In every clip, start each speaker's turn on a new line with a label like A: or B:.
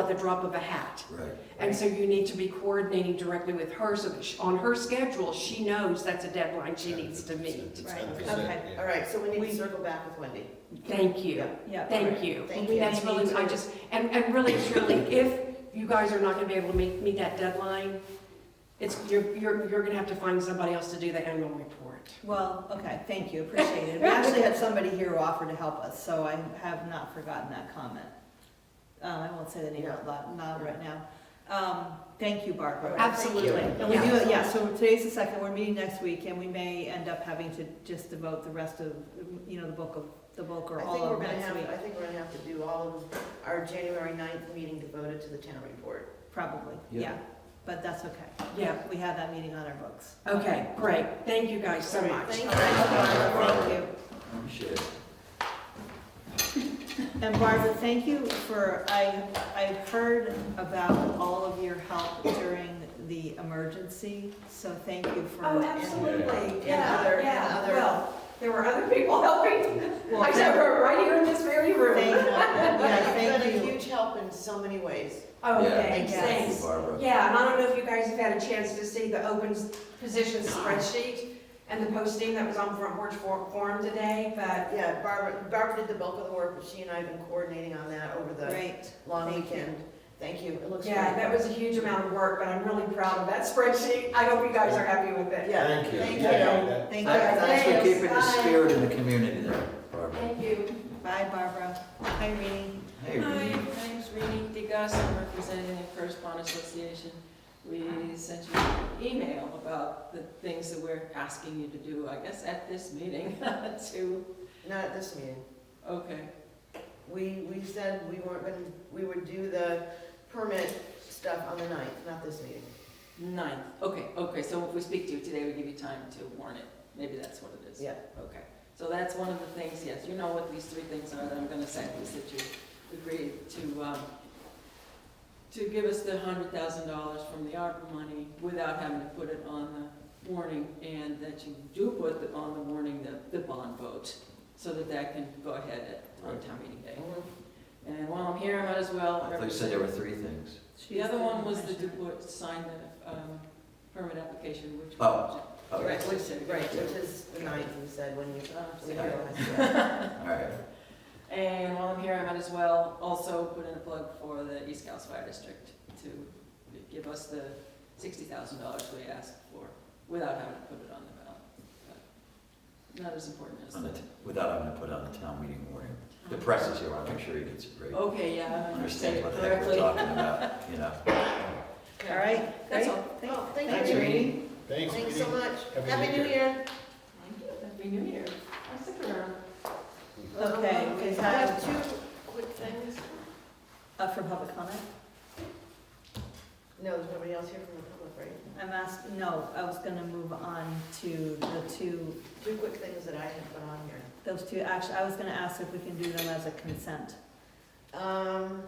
A: at the drop of a hat.
B: Right.
A: And so you need to be coordinating directly with her so that she- on her schedule, she knows that's a deadline she needs to meet.
C: Right,
D: Okay, all right, so we need to circle back with Wendy.
A: Thank you.
C: Yeah.
A: Thank you.
D: Thank you.
A: That's really, I just, and, and really, truly, if you guys are not gonna be able to meet, meet that deadline, it's, you're, you're, you're gonna have to find somebody else to do the annual report.
C: Well, okay, thank you, appreciate it. We actually had somebody here who offered to help us, so I have not forgotten that comment. Uh, I won't say the name out loud, not right now. Um, thank you, Barbara.
A: Absolutely.
C: And we do, yeah, so today's the second, we're meeting next week, and we may end up having to just devote the rest of, you know, the bulk of, the bulk or
D: I
C: all
D: think we're
C: of
D: gonna
C: next
D: have,
C: week,
D: I think we're gonna have to do all of our January 9th meeting devoted to the town report.
C: probably,
B: Yeah.
C: yeah. But that's okay.
A: Yeah,
C: We have that meeting on our books.
A: okay, great. Thank you guys so much.
D: Thank
C: All right, Barbara, thank you.
B: Appreciate it.
C: And Barbara, thank you for, I, I've heard about all of your help during the emergency, so thank you for.
E: Oh, absolutely, yeah,
D: other- and
E: yeah,
D: other-
E: well, there were other people helping,
C: Well,
E: I said,
C: thank-
E: we're right here in this very
C: Thank,
E: room.
C: yeah,
D: You've
C: thank
D: been a
C: you.
D: huge help in so many ways.
E: Oh,
B: Yeah.
E: thanks,
C: Thank you.
B: Thank you,
E: thanks.
B: Barbara.
E: Yeah, and I don't know if you guys have had a chance to see the open position spreadsheet and the posting that was on Front Porch For- Forum today, but
D: Yeah, Barbara, Barbara did the bulk of the work, but she and I have been coordinating on that over the
C: Great,
D: long
C: Thank you.
D: weekend. Thank you, it looks great.
E: yeah, that was a huge amount of work, but I'm really proud of that spreadsheet. I hope you guys are happy with it.
D: Yeah,
B: Thank you.
D: Thank
B: Yeah.
D: you.
C: thank
B: Thanks thanks
C: you.
B: for
E: Thanks.
B: keeping the
E: Bye.
B: spirit in the community there, Barbara.
E: Thank you.
C: Bye, Barbara. Hi, Reenie.
B: Hey,
F: Hi,
B: Renee.
F: my name's Renee DeGus, I'm representing the First Bond Association. We sent you an email about the things that we're asking you to do, I guess, at this meeting, to,
D: Not at this meeting.
F: okay,
D: We, we said we weren't gonna, we would do the permit stuff on the 9th, not this meeting.
F: ninth, okay, okay, so if we speak to you today, we give you time to warn it, maybe that's what it is.
D: Yeah.
F: Okay, so that's one of the things, yes, you know what these three things are that I'm gonna say, is that you agreed to, um, to give us the hundred thousand dollars from the ARPA money without having to put it on the warning, and that you do put the- on the warning the, the bond vote, so that that can go ahead at, on town meeting day. And while I'm here, I might as well.
B: Mm-hmm. I thought you said there were three things.
F: The other one was the, to sign the, um, permit application, which.
B: Oh, Oh,
F: Right,
B: yes.
F: which is-
D: Right, which is the 9th, we said, when you,
F: Uh,
D: we
F: so-
D: realized that.
B: all right.
F: And while I'm here, I might as well also put in a plug for the East Coast Fire District to give us the sixty thousand dollars we asked for without having to put it on the ballot. But Not as important as
B: On the
F: that.
B: t- Without having to put on the town meeting warning. The press is here, I'll make sure he gets it right.
F: Okay, yeah, I
B: Understands
F: understand
B: what the heck we're
F: Oh, correctly.
B: talking about, you know.
C: All right.
F: That's
C: great.
F: all.
C: Thank-
D: Oh, thank
C: Thanks,
D: you.
C: Reenie.
G: Thanks,
D: Thanks so
G: Judy.
D: much.
G: Happy
D: Happy
G: New
D: New Year.
F: Happy New Year. I stick around.
C: Okay, we
D: Um, I have
C: have,
D: two quick things.
C: uh, for public comment?
D: No, there's nobody else here from the public, right?
C: I'm asked, no, I was gonna move on to the two
D: Two quick things that I have put on here.
C: Those two, actually, I was gonna ask if we can do them as a consent.
D: Um,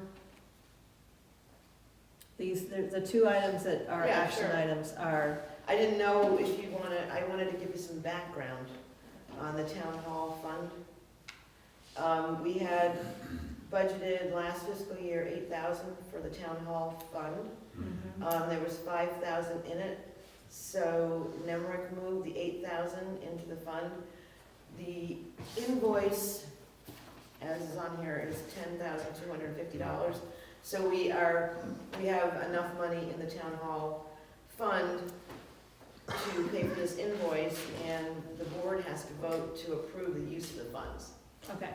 C: These, the, the two items that are
D: Yeah,
C: action
D: sure.
C: items are,
D: I didn't know if you wanna, I wanted to give you some background on the town hall fund. Um, we had budgeted last fiscal year eight thousand for the town hall fund. Um, there was five thousand in it, so Nemrick moved the eight thousand into the fund. The invoice, as is on here, is ten thousand two hundred and fifty dollars. So we are, we have enough money in the town hall fund to pay for this invoice, and the board has to vote to approve the use of the funds.
C: okay,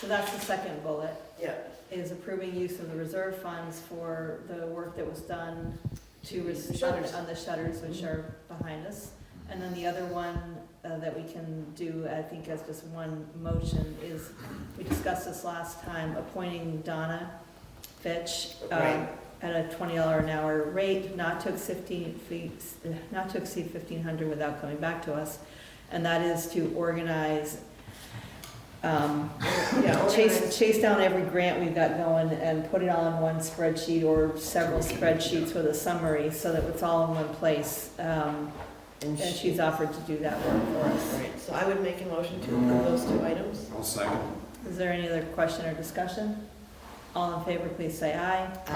C: so that's the second bullet,
D: Yeah,
C: is approving use of the reserve funds for the work that was done to,
D: To
C: res-
D: the shutters. Mm-hmm.
C: on the shutters, which are behind us. And then the other one uh, that we can do, I think as just one motion, is, we discussed this last time, appointing Donna Fitch um,
D: Right.
C: at a twenty dollar an hour rate, not to exceed fifteen, fee- not to exceed fifteen hundred without coming back to us. And that is to organize, um,
D: yeah.
C: chase, chase down every grant we've got going and put it all in one spreadsheet or several spreadsheets with a summary so that it's all in one place. Um,
D: And
C: And she's offered to do that work for us.
D: Right, so I would make a motion to approve those two items.
G: I'll second.
C: Is there any other question or discussion? All in favor, please say aye.